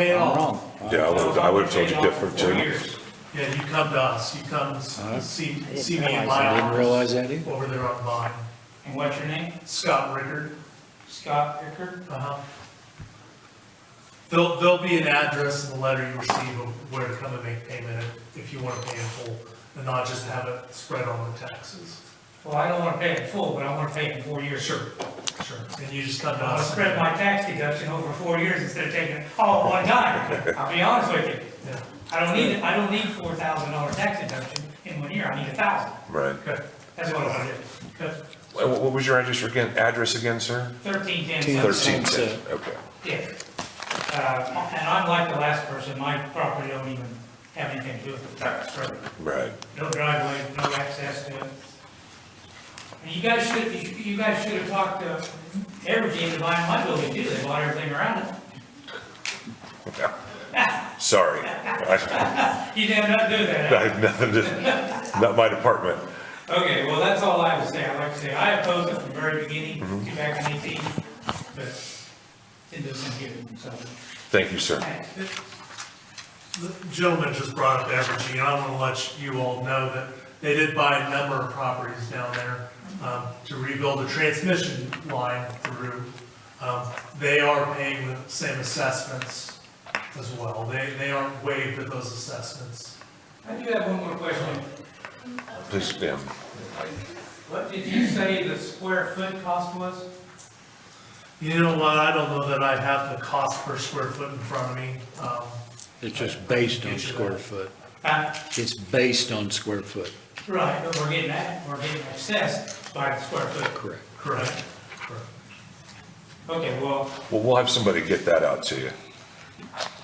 Pay it I'm all. wrong. Yeah, I would, I would have told you different Four too. years. Yeah, you come to us, you come s- see, see me in my I didn't office realize that either. over there on Vine. And what's your name? Scott Rickard, Scott Ricker? uh-huh. There'll, there'll be an address in the letter you receive of where to come and make payment if you want to pay in full and not just have it spread on the taxes. Well, I don't wanna pay it in full, but I wanna pay it in four years. Sure. Sure. And you just come to I'll us. spread my tax deduction over four years instead of taking it all at one time. I'll be honest with you. Yeah, I don't need, I don't need four thousand dollar tax deduction in one year. I need a thousand. Right. okay, That's what I wanna do. okay. Wha- What was your address again, address again, sir? Thirteen ten Ten. seven. Thirteen, Sunset. okay. Yeah. Uh, and I'm like the last person. My property don't even have anything to do with the tax service. Right. no driveway, no access to it. And you guys should, you you guys should have talked to Evergy to buy my building too, they bought everything around it. Sorry. I You did not do I that. have nothing to, not my department. Okay, well, that's all I would say, I'd like to say, I opposed it from the very beginning, two back in eighteen, but it doesn't give it, so, Thank you, sir. thanks. The gentleman just brought up Evergy, and I want to let you all know that they did buy a number of properties down there um, to rebuild a transmission line through. Um, They are paying the same assessments as well. They, they aren't waived at those assessments. I do have one more question, Please, ma'am. what did you say the square foot cost was? You know what, I don't know that I have the cost per square foot in front of me. Um, It's just based on square foot. Uh, It's based on square foot, Right, but we're getting that, we're getting accessed by the square foot. correct. Correct? Correct. Okay, well, Well, we'll have somebody get that out to you.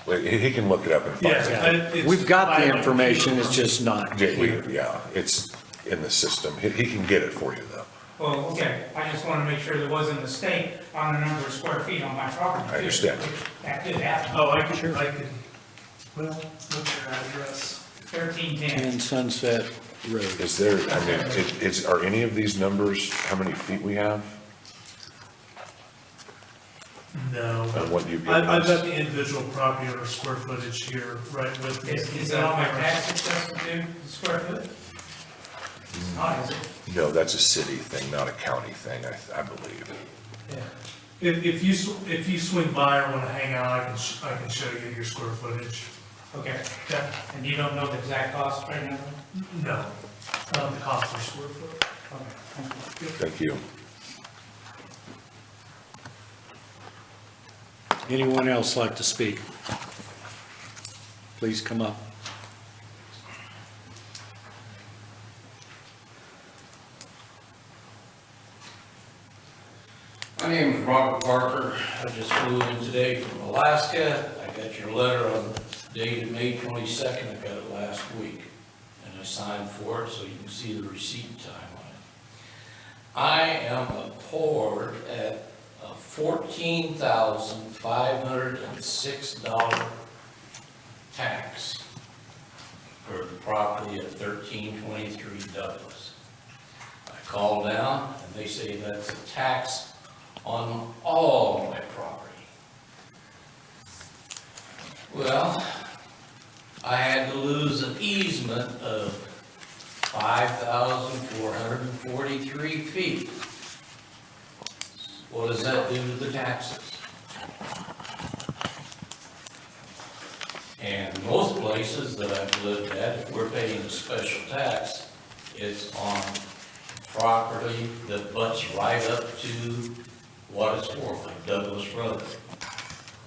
Wait, He he can look it up and find Yeah. it. But it's- We've got I- the information, it's just not Yeah, here. we- Yeah, it's in the system. He he can get it for you though. well, okay, I just want to make sure there wasn't a mistake on the number of square feet on my property. I understand. which That could happen, Oh, I can, I can, well, what's your address? thirteen ten, And Sunset Road, Is there, I mean, it- it's, are any of these numbers, how many feet we have No. and what you've given I've, I've got us? the individual property owner square footage here, right with. the- is, is that on my tax assessment due, the square foot? It's not, is it? No, that's a city thing, not a county thing, I I believe. Yeah. If, if you, sw- if you swing by or wanna hang out, I can, sh- I can show you your square footage. Okay, Okay. and you don't know the exact cost right now? No, um, the cost per square foot. Okay, thank you. Thank you. anyone else like to speak? Please come up. My name is Robert Parker. I just flew in today from Alaska. I got your letter on dated May 22nd. I got it last week. And I signed for it, so you can see the receipt time on it. I am appalled at a $14,506 tax for the property at 1323 Douglas. I call down, and they say that's a tax on all my property. Well, I had to lose an easement of five thousand four hundred and forty-three feet. What does that do to the taxes? And most places that I've lived at, if we're paying a special tax, it's on property that butts right up to what is for, like Douglas Road,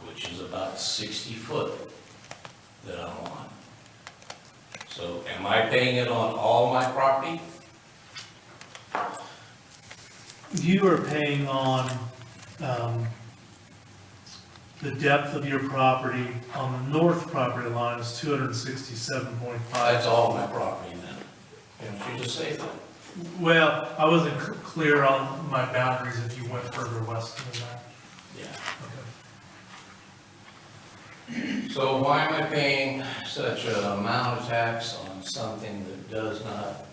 which is about sixty foot that I'm on. So am I paying it on all my property? You are paying on, um, the depth of your property on the north property line is two hundred and sixty-seven point That's five. all my property then. Didn't you just say that? Well, I wasn't c- clear on my boundaries if you went further west than that. Yeah. Okay. So why am I paying such an amount of tax on something that does not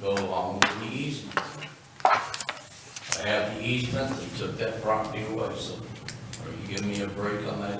go along with the easement? I have the easement that took that property away, so are you giving me a break on that